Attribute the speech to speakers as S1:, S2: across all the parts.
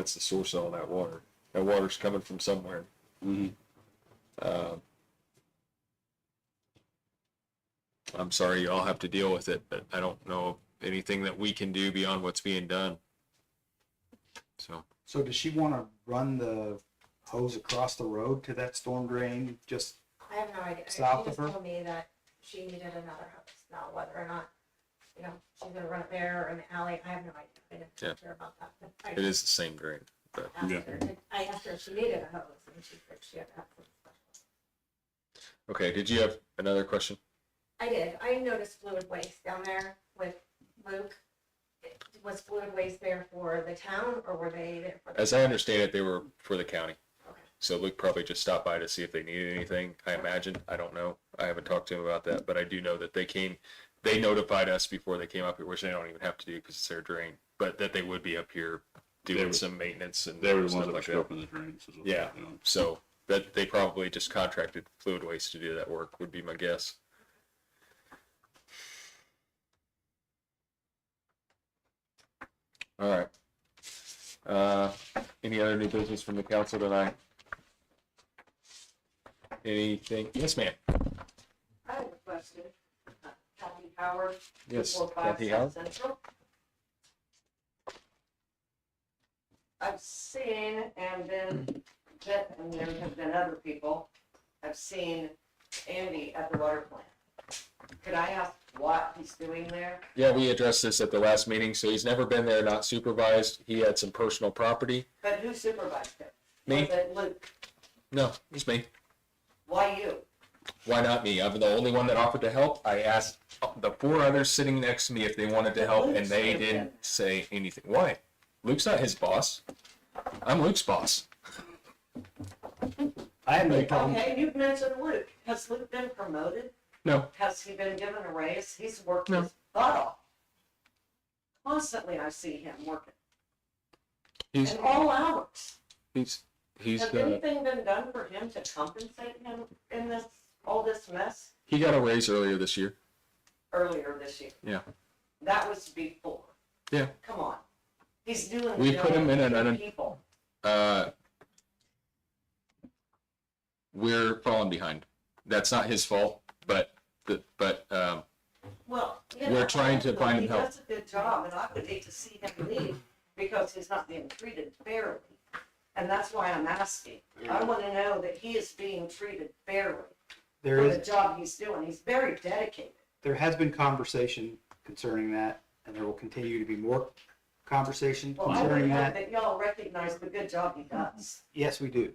S1: That's the source of all that water. That water's coming from somewhere.
S2: Mhm.
S1: Uh, I'm sorry, you all have to deal with it, but I don't know anything that we can do beyond what's being done. So
S3: So does she want to run the hose across the road to that storm drain? Just
S4: I have no idea.
S3: South
S4: She
S3: of
S4: just
S3: her?
S4: told me that she needed another house, now whether or not, you know, she's gonna run it there or in the alley, I have no idea. I didn't
S1: Yeah.
S4: talk to her about that. but I
S1: it is the same drain. But
S4: asked
S2: Yeah.
S4: her if- I asked her if she needed a hose and she said she had to have some special.
S1: okay, did you have another question?
S4: I did, I noticed fluid waste down there with Luke. It- Was fluid waste there for the town or were they there for? the-
S1: As I understand it, they were for the county.
S4: Okay.
S1: So Luke probably just stopped by to see if they needed anything. I imagine. I don't know. I haven't talked to him about that, but I do know that they came. They notified us before they came up here, which they don't even have to do because it's their drain. But that they would be up here
S2: They
S1: doing
S2: were-
S1: some maintenance and
S2: They were the
S1: stuff
S2: ones that were
S1: like that.
S2: scoping the drains. is what they
S1: Yeah.
S2: were doing.
S1: So that they probably just contracted Fluid Waste to do that work would be my guess. All right. Uh, any other new business from the council tonight? Anything? Yes, ma'am.
S5: I have a question. Uh, Kathy Howard,
S1: Yes.
S5: four five
S1: Kathy Howard?
S5: South Central. I've seen and been, that- and there have been other people, I've seen Andy at the water plant. Could I ask what he's doing there?
S1: Yeah, we addressed this at the last meeting. So he's never been there, not supervised. He had some personal property.
S5: But who supervised him?
S1: Me?
S5: Was it Luke?
S1: No, it's me.
S5: Why you?
S1: why not me? I'm the only one that offered to help. I asked the four others sitting next to me if they wanted to help, and they didn't say anything. Why? Luke's not his boss. I'm Luke's boss.
S3: I have no
S1: Um,
S3: problem.
S5: Okay, you've mentioned Luke. Has Luke been promoted?
S1: No.
S5: Has he been given a raise? He's worked
S1: No.
S5: his butt off. Constantly I see him working,
S1: He's
S5: in all hours.
S1: he's he's
S5: Has
S1: uh,
S5: anything been done for him to compensate him in this, all this mess
S1: he got a raise earlier this year.
S5: earlier this year?
S1: Yeah.
S5: That was before.
S1: Yeah.
S5: Come on. He's doing.
S1: We put him in an un-
S5: an. People.
S1: Uh, we're falling behind. That's not his fault, but the but um,
S5: Well, you
S1: We're
S5: know,
S1: trying to
S5: honestly,
S1: find him help.
S5: He does a good job, and I would hate to see him leave because he's not being treated fairly. And that's why I'm asking. I want to know that he is being treated fairly
S3: There
S5: for the
S3: is
S5: job he's doing. He's very dedicated.
S3: there has been conversation concerning that, and there will continue to be more conversation
S5: Well, I would
S3: concerning
S5: hope
S3: that.
S5: that y'all recognize the good job he does,
S3: Yes, we do.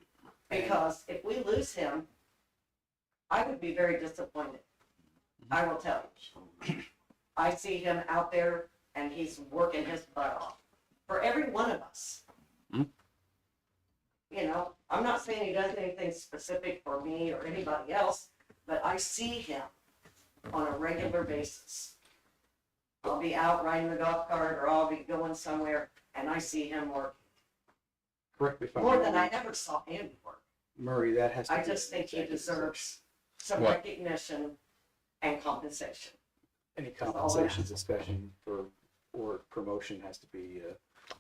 S5: because if we lose him, I would be very disappointed. I will tell you. I see him out there and he's working his butt off for every one of us.
S2: Mhm.
S5: You know, I'm not saying he does anything specific for me or anybody else, but I see him on a regular basis. I'll be out riding the golf cart or I'll be going somewhere and I see him work
S3: Correct me if I'm
S5: more than I
S3: wrong.
S5: ever saw him work.
S3: Murray, that has. to
S5: I
S3: be
S5: just think he
S3: executive session.
S5: deserves some
S1: What?
S5: recognition and compensation.
S3: Any
S5: all that.
S3: compensation discussion for, or promotion has to be,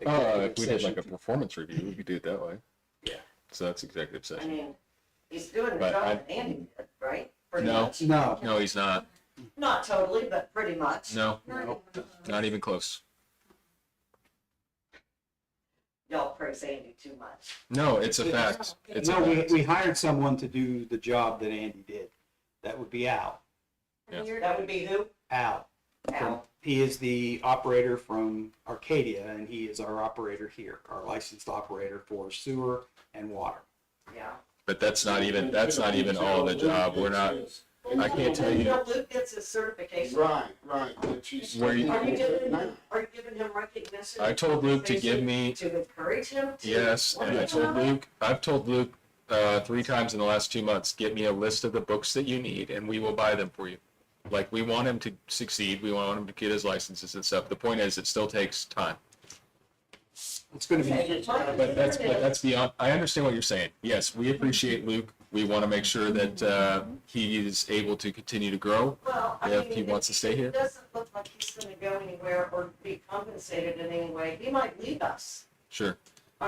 S3: uh.
S1: uh,
S3: executive
S1: if we did
S3: session.
S1: like a performance review, we could do it that way.
S3: Yeah.
S1: So that's executive
S5: I
S1: session.
S5: mean, he's doing the
S1: But I-
S5: job that Andy did, right? Pretty
S1: No.
S5: much.
S3: No,
S1: No, he's not.
S5: Not totally, but pretty much.
S1: No,
S3: no.
S1: not even close.
S5: Y'all praise Andy too much.
S1: No, it's a fact. It's
S3: no,
S1: a
S3: we,
S1: fact.
S3: we hired someone to do the job that Andy did. That would be Al.
S4: And you're-
S5: That would be who?
S3: Al.
S5: Al.
S3: He is the operator from Arcadia and he is our operator here, our licensed operator for sewer and water.
S5: Yeah.
S1: But that's not even, that's not even all the job. We're not, I can't tell you-
S5: Until Luke gets his certification, are
S6: Right, right, but she's.
S1: Where you-
S5: you giving, him- are you giving him recognition?
S1: I told Luke to give me,
S5: To encourage him? to-
S1: yes, and I told Luke, I've told Luke, uh, three times in the last two months, get me a list of the books that you need and we will buy them for you. Like, we want him to succeed. We want him to get his licenses and stuff. The point is, it still takes time.
S3: It's gonna
S5: Okay,
S3: be,
S5: it's my
S1: But that's,
S5: concern
S1: but that's beyond, I understand what you're saying. Yes, we appreciate Luke. We want to make sure that, uh, he is able to continue to grow.
S5: Well, I
S1: If
S5: mean,
S1: he wants to stay here.
S5: It doesn't look like he's gonna go anywhere or be compensated in any way. He might leave us.
S1: Sure.